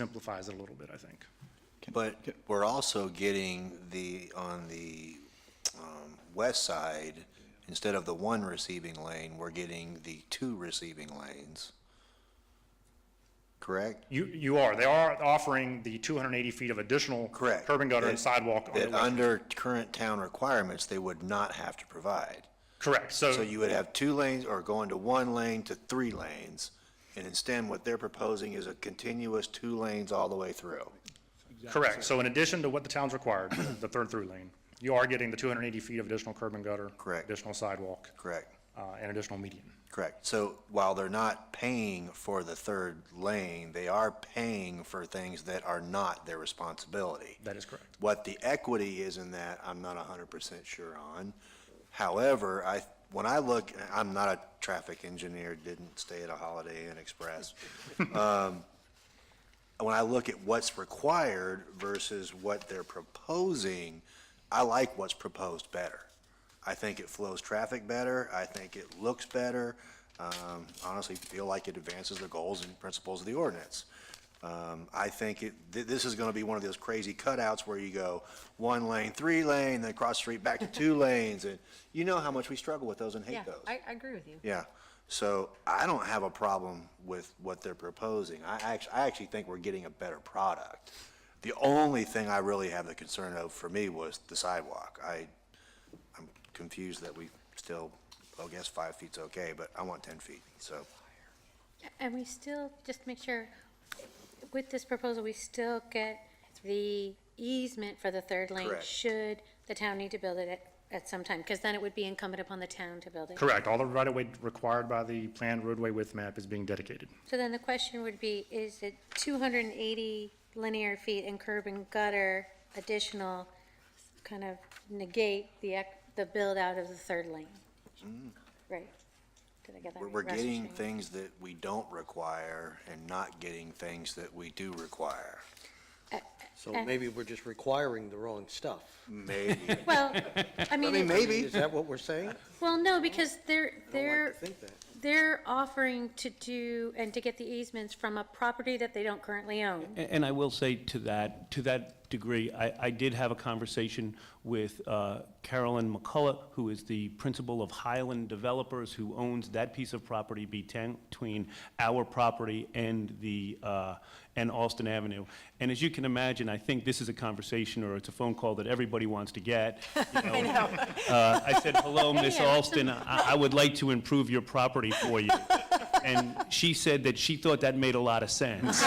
simplifies it a little bit, I think. But we're also getting the, on the um, west side, instead of the one receiving lane, we're getting the two receiving lanes. Correct? You, you are, they are offering the 280 feet of additional Correct. curb and gutter and That- sidewalk on the That way. under current town requirements, they would not have to provide. Correct, So so, you would have two lanes or going to one lane to three lanes. And instead, what they're proposing is a continuous two lanes all the way through. correct, so in addition to what the town's required, the third through lane, you are getting the 280 feet of additional curb and gutter. Correct. Additional sidewalk, Correct? uh, and additional median. Correct. So while they're not paying for the third lane, they are paying for things that are not their responsibility. That is correct. What the equity is in that, I'm not hundred percent sure on. However, I, when I look, I'm not a traffic engineer, didn't stay at a Holiday Inn Express. Um, When I look at what's required versus what they're proposing, I like what's proposed better. I think it flows traffic better, I think it looks better, um, honestly feel like it advances the goals and principles of the ordinance. Um, I think it, th- this is gonna be one of those crazy cutouts where you go one lane, three lane, then cross the street back to two lanes, and you know how much we struggle with those and Yeah, hate those. I, I agree with you. Yeah, so I don't have a problem with what they're proposing. I actually, I actually think we're getting a better product. The only thing I really have the concern of for me was the sidewalk. I, I'm confused that we still, I guess five feet's okay, but I want ten feet, so. And we still, just to make sure, with this proposal, we still get the easement for the third lane? Correct. Should the town need to build it at, at some time? Because then it would be incumbent upon the town to build it. Correct, all the right-of-way required by the planned roadway width map is being dedicated. So then the question would be, is it 280 linear feet in curb and gutter additional kind of negate the, ac- the build-out of the third lane? Right? Did I get that Hmm. We're, right? we're Russ, getting Shane? things that we don't require and not getting things that we do require. So Okay. maybe we're just requiring the wrong stuff. Maybe, Well, I mean. mean, it- maybe- Is that what we're saying? Well, no, because they're, I they're, don't like to think that. they're offering to do and to get the easements from a property that they don't currently own. A- And I will say to that, to that degree, I, I did have a conversation with uh, Carolyn McCullough, who is the principal of Highland Developers, who owns that piece of property beten- between our property and the, uh, and Alston Avenue. And as you can imagine, I think this is a conversation, or it's a phone call that everybody wants to get. I know. Uh, I said, hello, Miss Yeah. Alston, I, I would like to improve your property for you. And she said that she thought that made a lot of sense.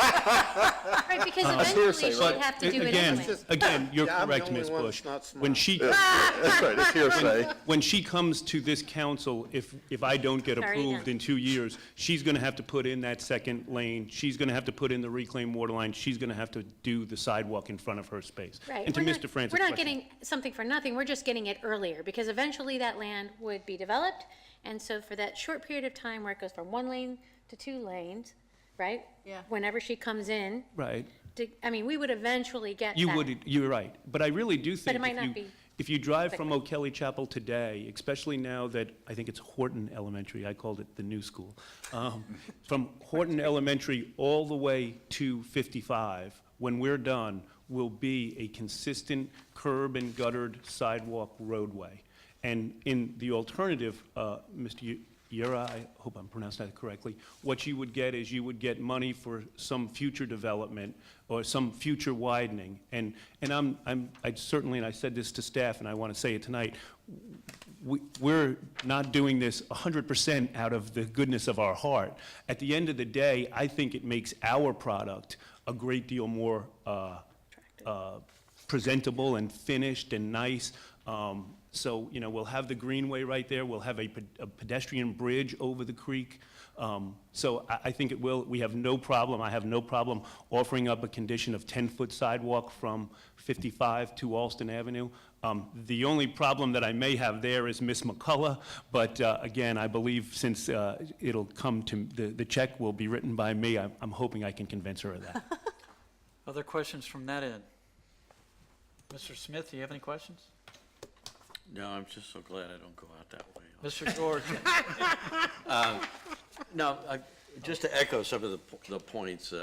Right, because eventually Uh, But she'd have to do it again, anyway. Again, you're Yeah, I'm the correct, only Ms. one Bush. that's not When smart. she, That's right, it's hearsay. when she comes to this council, if, if I don't get Sorry, approved yeah. in two years, she's going to have to put in that second lane, she's going to have to put in the reclaimed water line, she's going to have to do the sidewalk in front of her space. Right. And to we're not- Mr. Francis' We're not question- getting something for nothing, we're just getting it earlier, because eventually that land would be developed. And so for that short period of time where it goes from one lane to two lanes, right? Yeah. Whenever she comes in, Right. to- I mean, we would eventually get that. You would, you're right, but I really do think. it if might not you- be If you drive from O'Kelly Chapel today, especially now that, I think it's Horton Elementary, I called it the new school. um, From Horton Elementary all the way to 55, when we're done, will be a consistent curb and guttered sidewalk roadway. And in the alternative, uh, Mr. Yu- Yura, I hope I'm pronouncing that correctly, what you would get is you would get money for some future development or some future widening. And, and I'm, I'm, I certainly, and I said this to staff, and I want to say it tonight, we, we're not doing this 100% out of the goodness of our heart. At the end of the day, I think it makes our product a great deal more uh, uh, presentable and finished and nice. Um, So, you know, we'll have the greenway right there, we'll have a pe- a pedestrian bridge over the creek. Um, So I, I think it will, we have no problem, I have no problem offering up a condition of 10-foot sidewalk from 55 to Alston Avenue. Um, The only problem that I may have there is Miss McCullough, but uh, again, I believe since uh, it'll come to, the, the check will be written by me, I'm, I'm hoping I can convince her of that. Other questions from that end? Mr. Smith, do you have any questions? No, I'm just so glad I don't go out that way. Mr. George? No, I- just to echo some of the, po- the points uh,